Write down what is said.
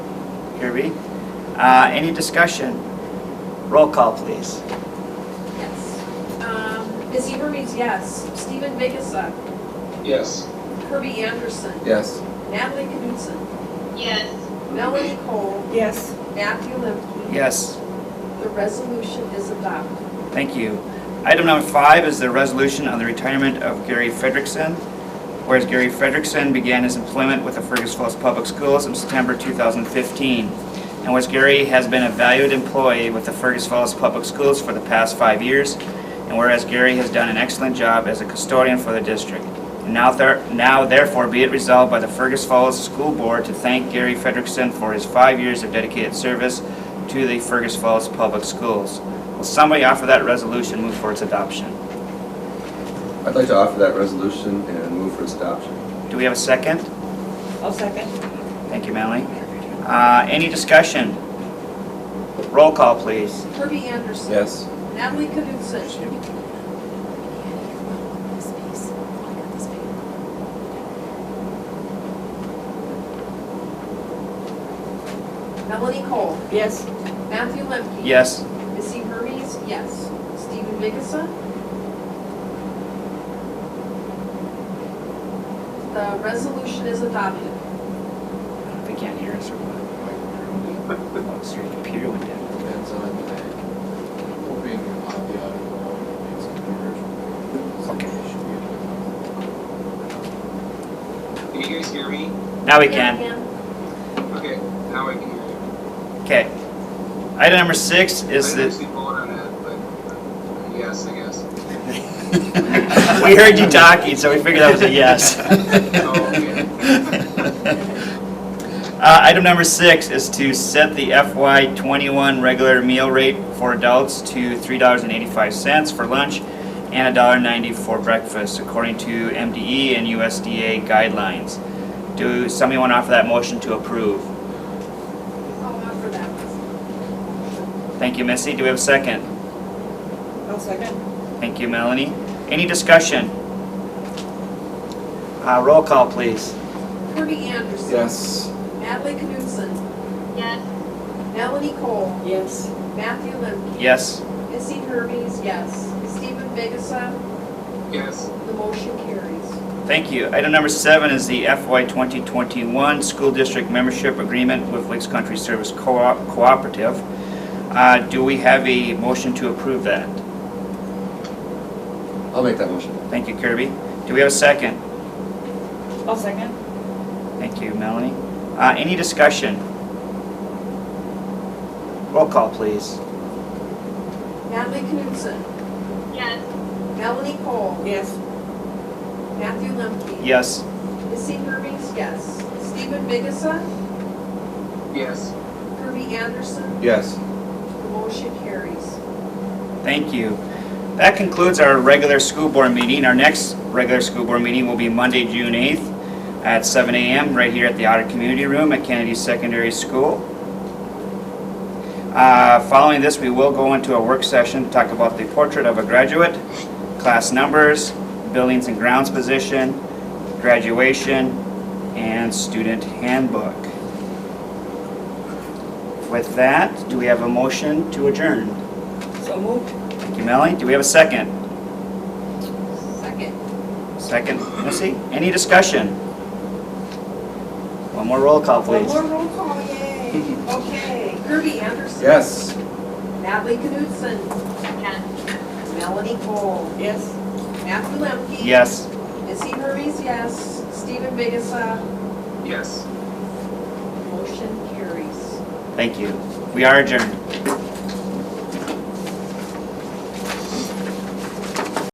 Your read. Uh, Any discussion? Roll call, please. Yes. Um, Ms. Eber reads yes. Stephen Vigasa, Yes. Kirby Anderson, Yes. Natalie Knudsen, yes, Melanie Cole, yes, Matthew Limkey. Yes, The resolution is adopted. thank you. Item number five is the resolution on the retirement of Gary Frederickson. Whereas Gary Frederickson began his employment with the Fergus Falls Public Schools in September 2015. And whereas Gary has been a valued employee with the Fergus Falls Public Schools for the past five years, and whereas Gary has done an excellent job as a custodian for the district. Now ther- now therefore be it resolved by the Fergus Falls School Board to thank Gary Frederickson for his five years of dedicated service to the Fergus Falls Public Schools. Will somebody offer that resolution, move for its adoption? I'd like to offer that resolution and move for its adoption. Do we have a second? I'll second, Thank you, Melanie. Uh, Any discussion? Roll call, please. Kirby Anderson. Yes. Natalie Knudsen. Melanie Cole, yes, Matthew Lemke. Yes, Ms. Eber reads yes. Stephen Vigasa. The resolution is adopted. they can't hear us or what? What's your computer went down? Depends on the day. Hoping on the audio, it's a commercial. Okay. Can you guys hear me? Now we Yeah, can. Okay, now I can hear you. Okay. Item number six is I the, didn't actually vote on that, but uh, yes, I guess. we heard you talking, so we figured that was a yes. Oh, okay. Uh, Item number six is to set the FY '21 regular meal rate for adults to $3.85 for lunch and $1.90 for breakfast, according to MDE and USDA guidelines. Do somebody want to offer that motion to approve? I'll offer oh, that. Thank you, Missy. Do we have a second? I'll second, Thank you, Melanie. Any discussion? Uh, Roll call, please. Kirby Anderson. Yes. Natalie Knudsen, yes, Melanie Cole, yes, Matthew Limkey. Yes. Missy Hermes, yes. Stephen Vigasa, Yes. the motion carries. Thank you. Item number seven is the FY 2021 School District Membership Agreement with Lakes Country Service Co-op- Cooperative. Uh, Do we have a motion to approve that? I'll make that motion. Thank you, Kirby. Do we have a second? I'll second, Thank you, Melanie. Uh, Any discussion? Roll call, please. Natalie Knudsen, yes, Melanie Cole, yes, Matthew Lemke. Yes. Missy Hermes, yes. Stephen Vigasa, Yes. Kirby Anderson, Yes. the motion carries. Thank you. That concludes our regular school board meeting. Our next regular school board meeting will be Monday, June 8th at 7 a.m. right here at the Otter Community Room at Kennedy Secondary School. Uh, Following this, we will go into a work session to talk about the portrait of a graduate, class numbers, buildings and grounds position, graduation, and student handbook. With that, do we have a motion to adjourn? so moved. Thank you, Melanie. Do we have a second? Second. Second, Missy? Any discussion? One more roll call, One please. more roll call, yay. Okay. Kirby Anderson. Yes. Natalie Knudsen, yes. Melanie Cole, Yes. Matthew Lemke. Yes. Missy Hermes, yes. Stephen Vigasa, Yes. motion carries. Thank you. We are adjourned.